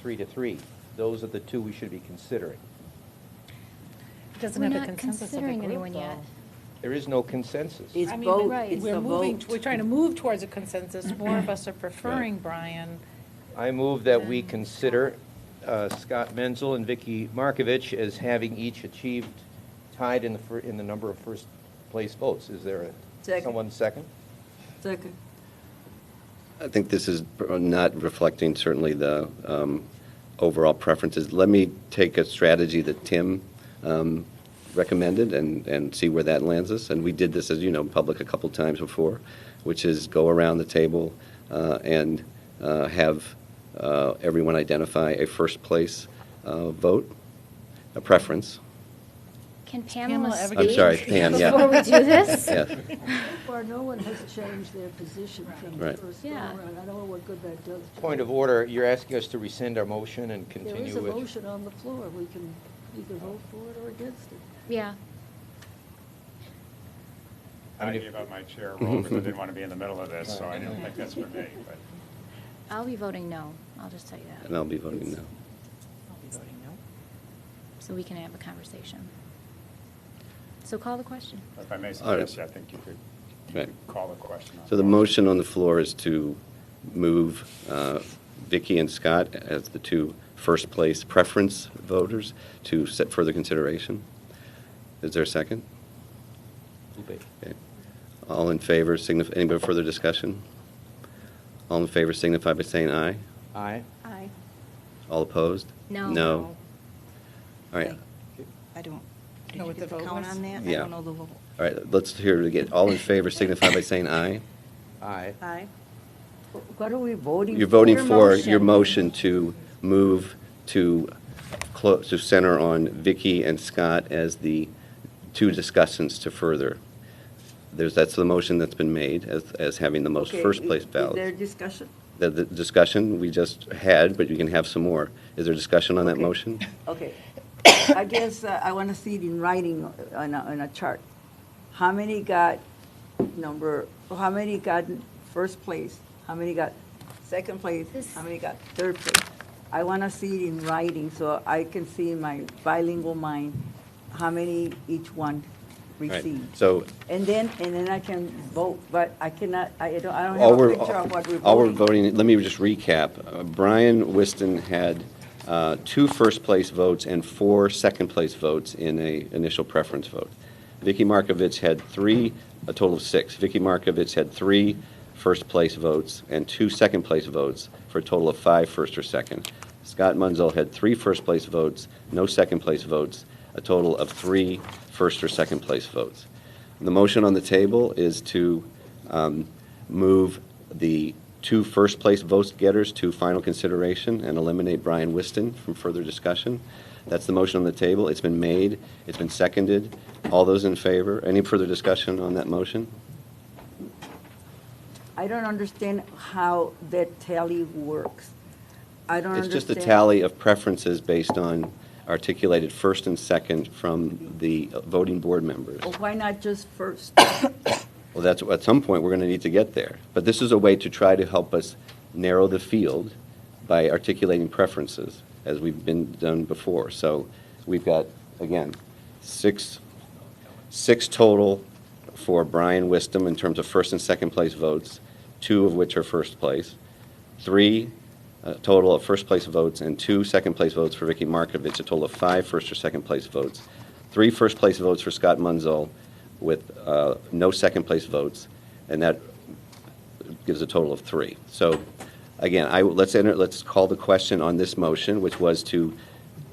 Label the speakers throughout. Speaker 1: three to three. Those are the two we should be considering.
Speaker 2: Doesn't
Speaker 3: We're
Speaker 2: have a
Speaker 3: not
Speaker 2: consensus of the
Speaker 3: considering
Speaker 2: group,
Speaker 3: anyone yet.
Speaker 2: though.
Speaker 1: There is no consensus.
Speaker 4: It's
Speaker 2: I mean,
Speaker 4: vote,
Speaker 3: Right.
Speaker 4: it's
Speaker 2: We're
Speaker 4: a
Speaker 2: moving,
Speaker 4: vote.
Speaker 2: we're trying to move towards a consensus. More of us are preferring Brian.
Speaker 1: I move that we consider uh, Scott Menzel and Vicky Markovich as having each achieved tied in the, fir- in the number of first-place votes. Is there a,
Speaker 4: Second.
Speaker 1: someone second?
Speaker 4: Second.
Speaker 5: I think this is not reflecting certainly the um, overall preferences. Let me take a strategy that Tim um, recommended and, and see where that lands us. And we did this, as you know, in public a couple times before, which is go around the table uh, and uh, have uh, everyone identify a first place uh, vote, a preference.
Speaker 3: Can
Speaker 2: Pamela
Speaker 3: Pamela
Speaker 2: ever
Speaker 3: speak?
Speaker 2: get- I'm sorry,
Speaker 5: Pam, yeah.
Speaker 3: Before we do this?
Speaker 5: Yes.
Speaker 6: far, no one has changed their position from the
Speaker 5: Right.
Speaker 6: first
Speaker 3: Yeah.
Speaker 6: go-around. I don't know what good that does. to
Speaker 1: Point
Speaker 6: them.
Speaker 1: of order, you're asking us to rescind our motion and
Speaker 6: There
Speaker 1: continue
Speaker 6: is a
Speaker 1: with...
Speaker 6: motion on the floor. We can either vote for it or against it.
Speaker 3: Yeah.
Speaker 1: I mean,
Speaker 7: I
Speaker 1: if-
Speaker 7: gave up my chair
Speaker 5: Mm-hmm.
Speaker 7: role because I didn't want to be in the middle of this, so I didn't think that's for me, but.
Speaker 3: I'll be voting no. I'll just tell you
Speaker 5: And I'll
Speaker 3: that.
Speaker 5: be voting no.
Speaker 2: I'll be voting no.
Speaker 3: So we can have a conversation. So call the question.
Speaker 7: If I may
Speaker 5: All right.
Speaker 7: suggest, I think you could
Speaker 5: Right.
Speaker 7: call the question. on
Speaker 5: So the
Speaker 7: that.
Speaker 5: motion on the floor is to move uh, Vicky and Scott as the two first-place preference voters to set further consideration. Is there a second?
Speaker 1: Lupe.
Speaker 5: Okay. All in favor, signify, any further discussion? All in favor signify by saying aye.
Speaker 1: Aye.
Speaker 3: Aye.
Speaker 5: All opposed?
Speaker 3: No.
Speaker 5: No. All right, all
Speaker 8: I don't, did
Speaker 2: Know
Speaker 8: you
Speaker 2: what
Speaker 8: do
Speaker 2: the
Speaker 8: the
Speaker 2: vote
Speaker 8: count
Speaker 2: was?
Speaker 8: on that? I
Speaker 5: Yeah.
Speaker 8: don't know the vote.
Speaker 5: right, let's hear it again. All in favor signify by saying aye.
Speaker 1: Aye.
Speaker 8: Aye.
Speaker 4: What are we voting for?
Speaker 5: You're voting
Speaker 3: Your
Speaker 5: for your
Speaker 3: motion.
Speaker 5: motion to move to, clo- to center on Vicky and Scott as the two discussants to further. There's, that's the motion that's been made as, as having the most
Speaker 4: Okay, is-
Speaker 5: first-place
Speaker 4: Is there
Speaker 5: ballots.
Speaker 4: discussion?
Speaker 5: The, the discussion we just had, but you can have some more. Is there discussion on that
Speaker 4: Okay.
Speaker 5: motion?
Speaker 4: Okay. I guess uh, I want to see it in writing on a, on a chart. How many got number, how many got first place? How many got second place?
Speaker 3: This-
Speaker 4: How many got third place? I want to see it in writing so I can see in my bilingual mind how many each one
Speaker 5: Right.
Speaker 4: received.
Speaker 5: So
Speaker 4: And then, and then I can vote, but I cannot, I don't, I don't
Speaker 5: All
Speaker 4: have a
Speaker 5: we're,
Speaker 4: picture of what we're voting.
Speaker 5: all we're voting, let me just recap. Uh, Brian Whiston had uh, two first-place votes and four second-place votes in a initial preference vote. Vicky Markovich had three, a total of six. Vicky Markovich had three first-place votes and two second-place votes, for a total of five first or second. Scott Munzel had three first-place votes, no second-place votes, a total of three first or second-place votes. The motion on the table is to um, move the two first-place vote getters to final consideration and eliminate Brian Whiston from further discussion. That's the motion on the table. It's been made. It's been seconded. All those in favor? Any further discussion on that motion?
Speaker 4: I don't understand how that tally works. I don't
Speaker 5: It's
Speaker 4: understand.
Speaker 5: just a tally of preferences based on articulated first and second from the voting board members.
Speaker 4: Well, Why not just first?
Speaker 5: Well, that's, at some point, we're going to need to get there. But this is a way to try to help us narrow the field by articulating preferences, as we've been done before. So we've got, again, six, six total for Brian Wisdom in terms of first and second place votes, two of which are first place, three uh, total of first place votes, and two second place votes for Vicky Markovich, a total of five first or second place votes, three first place votes for Scott Munzel with uh, no second place votes, and that gives a total of three. So again, I, let's enter, let's call the question on this motion, which was to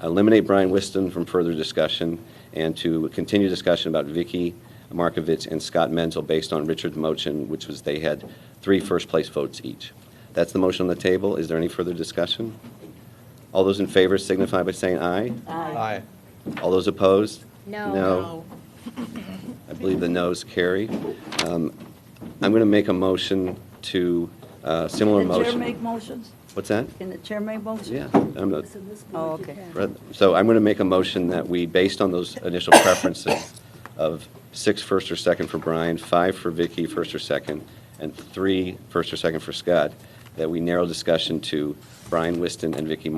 Speaker 5: eliminate Brian Whiston from further discussion and to continue discussion about Vicky Markovich and Scott Menzel based on Richard's motion, which was they had three first-place votes each. That's the motion on the table. Is there any further discussion? All those in favor signify by saying aye.
Speaker 1: Aye.
Speaker 5: All those opposed?
Speaker 3: No.
Speaker 5: No. I believe the noes carry. Um, I'm going to make a motion to, uh, similar
Speaker 4: Can the chair
Speaker 5: motion.
Speaker 4: make motions?
Speaker 5: What's that?
Speaker 4: Can the chair make motions?
Speaker 5: Yeah, I'm not,
Speaker 6: It's in this
Speaker 4: Oh,
Speaker 6: board you
Speaker 4: okay.
Speaker 6: can.
Speaker 5: Right, So I'm going to make a motion that we, based on those initial preferences of six first or second for Brian, five for Vicky, first or second, and three first or second for Scott, that we narrow discussion to Brian Whiston and Vicky Martin